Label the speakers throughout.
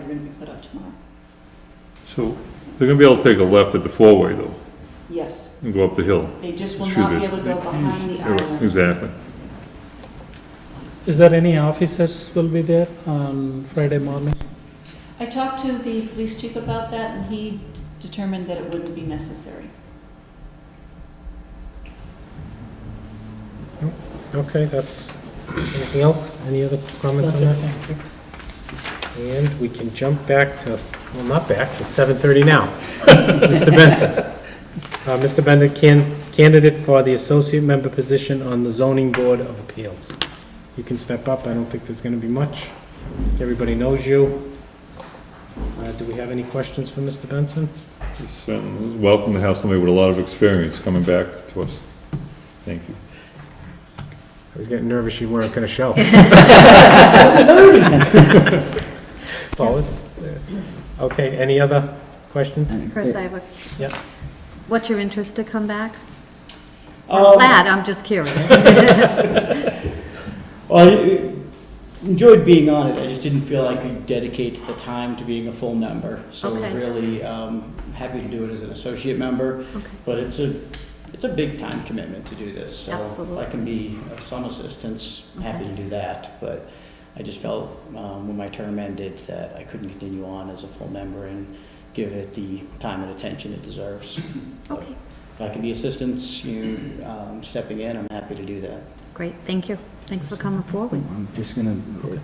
Speaker 1: gonna be put out tomorrow.
Speaker 2: So they're gonna be able to take a left at the four-way though,
Speaker 1: Yes,
Speaker 2: and go up the hill.
Speaker 1: they just will
Speaker 2: Shoot
Speaker 1: not be
Speaker 2: it.
Speaker 1: able to go behind the island.
Speaker 2: Exactly.
Speaker 3: Is there any officers will be there on Friday morning?
Speaker 1: I talked to the police chief about that, and he determined that it wouldn't be necessary.
Speaker 4: Okay, that's, anything else? Any other comments
Speaker 3: That's
Speaker 4: on
Speaker 3: it,
Speaker 4: that?
Speaker 3: thank you.
Speaker 4: And we can jump back to, well, not back, it's 7:30 now. Mr. Benson. Uh, Mr. Benson, can- candidate for the associate member position on the zoning board of appeals. You can step up, I don't think there's going to be much. Everybody knows you. Uh, Do we have any questions for Mr. Benson?
Speaker 2: Just um, welcome to have somebody with a lot of experience coming back to us. Thank you.
Speaker 4: I was getting nervous you weren't going to show. Well, it's, uh, okay, any other questions?
Speaker 5: Chris, I have a.
Speaker 4: Yeah.
Speaker 5: What's your interest to come back?
Speaker 6: Um,
Speaker 5: I'm glad, I'm just curious.
Speaker 6: Well, I enjoyed being on it. I just didn't feel I could dedicate the time to being a full member. So I was
Speaker 5: Okay.
Speaker 6: really um, happy to do it as an associate member.
Speaker 5: Okay.
Speaker 6: But it's a it's a big time commitment to do this. So
Speaker 5: Absolutely.
Speaker 6: if I can be of some assistance, happy to do that. But I just felt um, when my term ended that I couldn't continue on as a full member and give it the time and attention it deserves.
Speaker 5: Okay,
Speaker 6: If I can be assistance, you um, stepping in, I'm happy to do that.
Speaker 5: great, thank you. Thanks for coming forward.
Speaker 7: I'm just gonna,
Speaker 4: No,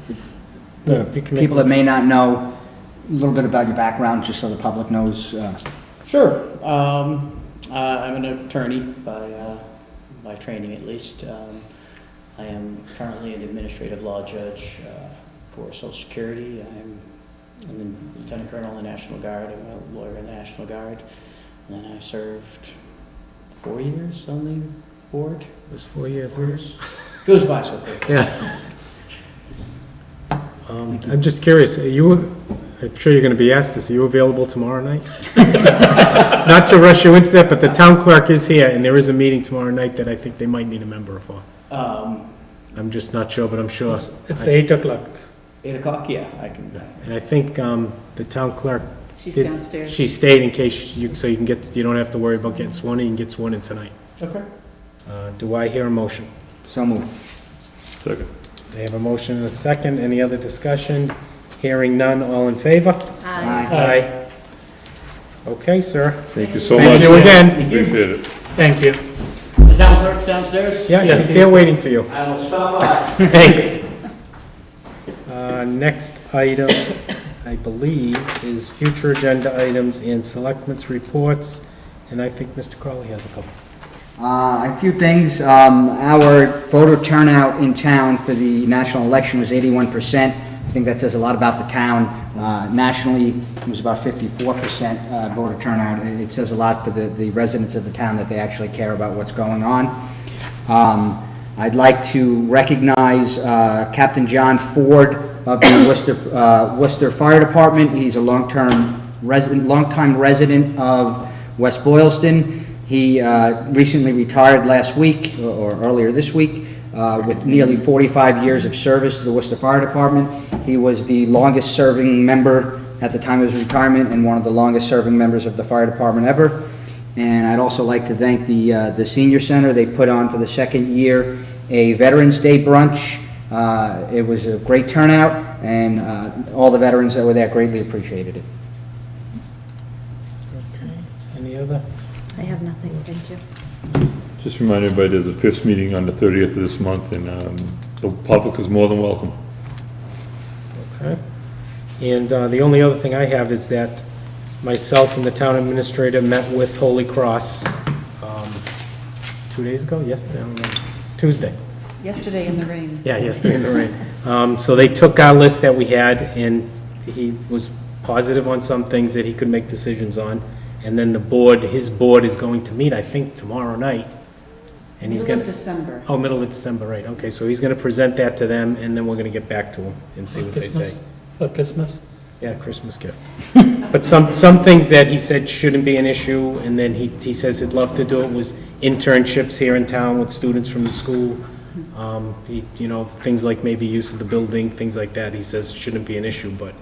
Speaker 7: the
Speaker 4: you can make-
Speaker 7: people that may not know, a little bit about your background, just so the public knows, uh,
Speaker 6: Sure. Um, uh, I'm an attorney by, uh, by training at least. Um, I am currently an administrative law judge uh, for Social Security. I'm I'm a lieutenant colonel in the National Guard. I'm a lawyer in the National Guard. And then I served four years on the board.
Speaker 4: It was four years. huh?
Speaker 6: Years. Goes by so quick.
Speaker 4: Yeah. Um, I'm just curious, are you, I'm sure you're going to be asked this, are you available tomorrow night? Not to rush you into that, but the town clerk is here, and there is a meeting tomorrow night that I think they might need a member for.
Speaker 6: Um,
Speaker 4: I'm just not sure, but I'm sure.
Speaker 3: It's eight o'clock.
Speaker 6: eight o'clock, yeah, I can.
Speaker 4: And I think um, the town clerk,
Speaker 1: She's
Speaker 4: Did-
Speaker 1: downstairs.
Speaker 4: she stayed in case you, so you can get, you don't have to worry about getting sworn in, you can get sworn in tonight.
Speaker 6: Okay.
Speaker 4: Uh, Do I hear a motion?
Speaker 7: so moved.
Speaker 2: Second.
Speaker 4: I have a motion and a second. Any other discussion? Hearing none, all in favor?
Speaker 5: Aye.
Speaker 4: Aye. Okay, sir.
Speaker 2: Thank you so much.
Speaker 4: Thank you again.
Speaker 2: Appreciate it.
Speaker 4: Thank you.
Speaker 6: The town clerk's downstairs?
Speaker 4: Yeah, she's here waiting for you.
Speaker 6: I will stop by.
Speaker 4: Thanks. Uh, Next item, I believe, is future agenda items and selectments reports, and I think Mr. Crowley has a couple.
Speaker 7: Uh, A few things. Um, Our voter turnout in town for the national election was 81%. I think that says a lot about the town. Uh, Nationally, it was about 54% uh, voter turnout. It it says a lot for the the residents of the town that they actually care about what's going on. Um, I'd like to recognize uh, Captain John Ford of the Worcester uh, Worcester Fire Department. He's a long-term resident, longtime resident of West Boylston. He uh, recently retired last week, or or earlier this week, uh, with nearly 45 years of service to the Worcester Fire Department. He was the longest-serving member at the time of his retirement, and one of the longest-serving members of the fire department ever. And I'd also like to thank the, uh, the senior center. They put on for the second year a Veterans Day brunch. Uh, it was a great turnout, and, uh, all the veterans that were there greatly appreciated it.
Speaker 4: Any other?
Speaker 5: I have nothing, thank you.
Speaker 2: Just remind everybody, there's a fifth meeting on the thirtieth of this month, and um, the public is more than welcome.
Speaker 4: Okay. And uh, the only other thing I have is that myself and the town administrator met with Holy Cross um, two days ago, yesterday, I don't know, Tuesday.
Speaker 1: Yesterday in the rain.
Speaker 4: Yeah, yesterday in the rain. Um, So they took our list that we had, and he was positive on some things that he could make decisions on. And then the board, his board is going to meet, I think, tomorrow night. And he's
Speaker 1: Middle
Speaker 4: going
Speaker 1: of
Speaker 4: to,
Speaker 1: December.
Speaker 4: oh, middle of December, right, okay. So he's going to present that to them, and then we're going to get back to him and see what they say.
Speaker 3: Christmas, for Christmas.
Speaker 4: Yeah, Christmas gift. But some, some things that he said shouldn't be an issue, and then he, he says he'd love to do it, was internships here in town with students from the school. Um, he, you know, things like maybe use of the building, things like that, he says shouldn't be an issue, but